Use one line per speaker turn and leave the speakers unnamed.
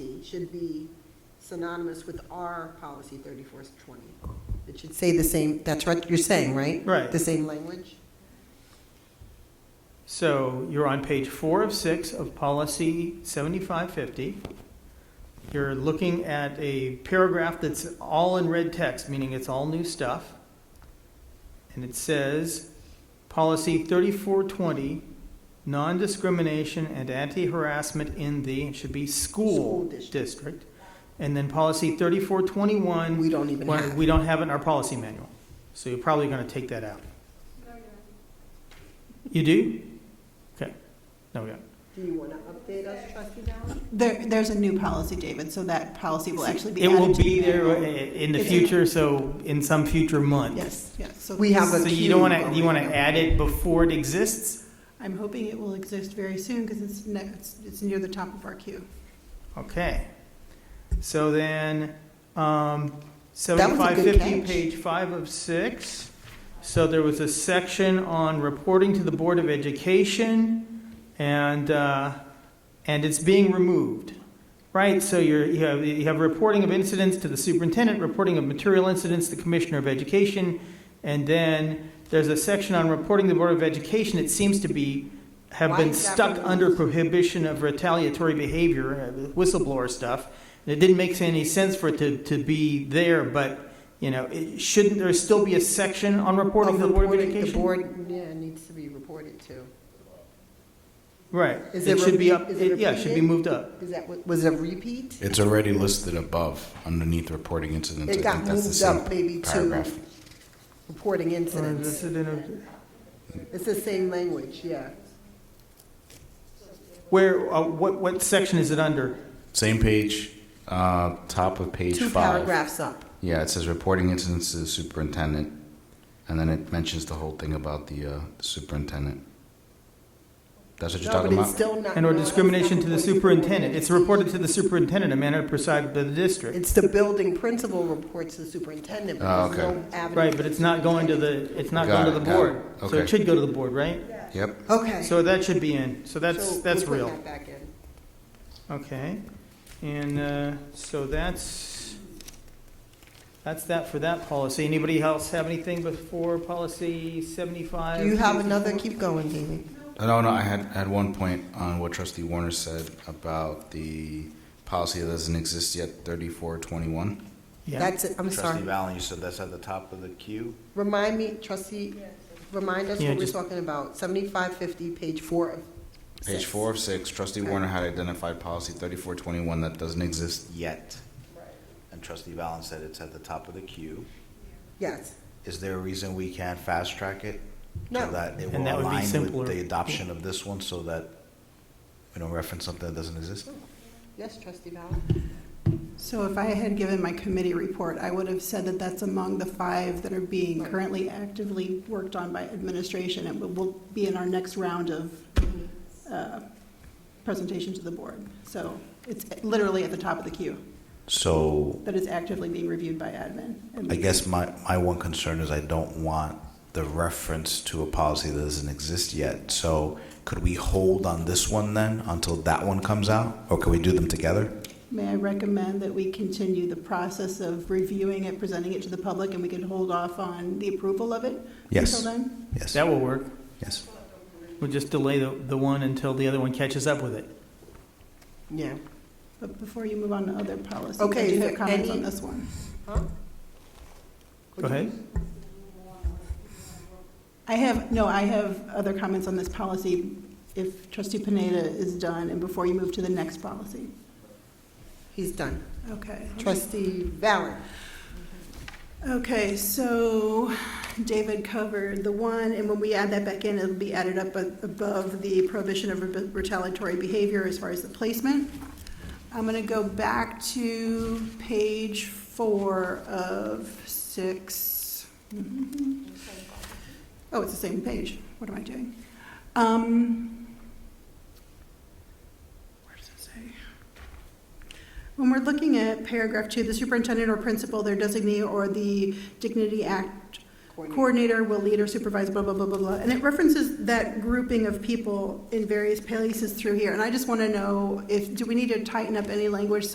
should be synonymous with our policy 3420. It should say the same, that's what you're saying, right?
Right.
The same language?
So you're on page four of six of policy 7550. You're looking at a paragraph that's all in red text, meaning it's all new stuff. And it says, policy 3420, non-discrimination and anti-harassment in the, it should be
School
school
district.
district. And then policy 3421,
We don't even
well,
have.
We don't have it in our policy manual, so you're probably going to take that out. You do? Okay, no, we don't.
Do you want to update us, trustee Dowling?
There, there's a new policy, David, so that policy will actually be
It
added
will
to
be
the
there uh,
manual.
in the
It's in-
future, so in some future month.
Yes, yes. So
We have
So
a-
you don't want to, you want to add it before it exists?
I'm hoping it will exist very soon because it's, ne- it's, it's near the top of our queue.
Okay. So then, um,
That was a good
7550,
catch.
page five of six. So there was a section on reporting to the Board of Education, and, uh, and it's being removed, right? So you're, you have, you have reporting of incidents to the superintendent, reporting of material incidents to the Commissioner of Education, and then there's a section on reporting to the Board of Education. It seems to be, have
Why
been
is that
stuck
removed?
under prohibition of retaliatory behavior, uh, whistleblower stuff. It didn't make any sense for it to, to be there, but, you know, it, shouldn't there still be a section on reporting to the Board of
Reporting- The
Education?
board, yeah, it needs to be reported to.
Right.
Is
It
it
should be
repeat-
up,
is it
it- yeah, it should be
repeated?
moved up.
Is that, what- was it a repeat?
It's already listed above underneath reporting incidents.
It
I
got
think that's the
moved
same
up maybe to
paragraph.
reporting incidents. It's the same language, yeah.
Where, uh, what, what section is it under?
Same page, uh, top of page
Two
five.
paragraphs up.
Yeah, it says reporting incidents to the superintendent, and then it mentions the whole thing about the uh, superintendent. That's what you're
No,
talking
but it's
about.
still not.
And or
no, it's
discrimination
not
to the
reported
superintendent. It's reported to the superintendent in manner prescribed by the district.
It's the building principal reports to the superintendent,
Oh,
but there's
okay.
no avenue.
Right, but it's not going to the, it's not
Got
going to
it,
the
got it.
board. So
Okay.
it should go to the board, right?
Yep.
Okay.
So that should be in. So that's,
So
that's
we'll put
real.
that back in.
Okay, and uh, so that's, that's that for that policy. Anybody else have anything before policy 75?
Do you have another, keep going, David.
Uh, No, no, I had, had one point on what trustee Warner said about the policy that doesn't exist yet, thirty-four twenty-one.
Yeah,
That's it, I'm
Trustee
sorry.
Valen, you said that's at the top of the queue?
Remind me, trustee, remind us
Yeah,
what we're
just-
talking about. Seventy-five fifty, page four of
Page
six.
four of six, trustee Warner had identified policy thirty-four twenty-one that doesn't exist.
Yet. And trustee Valen said it's at the top of the queue.
Yes.
Is there a reason we can't fast track it?
No.
So that it
And
will
that would be
align
simpler.
with the adoption of this one so that we don't reference something that doesn't exist?
Yes, trustee Ballard?
So if I had given my committee report, I would have said that that's among the five that are being currently actively worked on by administration and will- will be in our next round of uh, presentation to the board. So it's literally at the top of the queue
So
that is actively being reviewed by admin. And
I guess my, my one concern is I don't want the reference to a policy that doesn't exist yet. So could we hold on this one then until that one comes out? Or could we do them together?
May I recommend that we continue the process of reviewing it, presenting it to the public, and we could hold off on the approval of it
Yes.
until then?
Yes,
that will work.
yes.
We'll just delay the, the one until the other one catches up with it.
Yeah.
But before you move on to other policies, I
Okay,
do
is
have
there
comments on
any-
this one.
Huh?
Go ahead.
I have, no, I have other comments on this policy if trustee Pineda is done and before you move to the next policy.
He's done.
Okay.
Trustee Ballard?
Okay, so David covered the one, and when we add that back in, it'll be added up a- above the prohibition of retaliatory behavior as far as the placement. I'm going to go back to page four of six. Mm-hmm. Oh, it's the same page. What am I doing? Um, Where does it say? When we're looking at paragraph two, the superintendent or principal, their designee, or the Dignity Act coordinator will lead or supervise, blah, blah, blah, blah, blah. And it references that grouping of people in various places through here. And I just want to know if, do we need to tighten up any language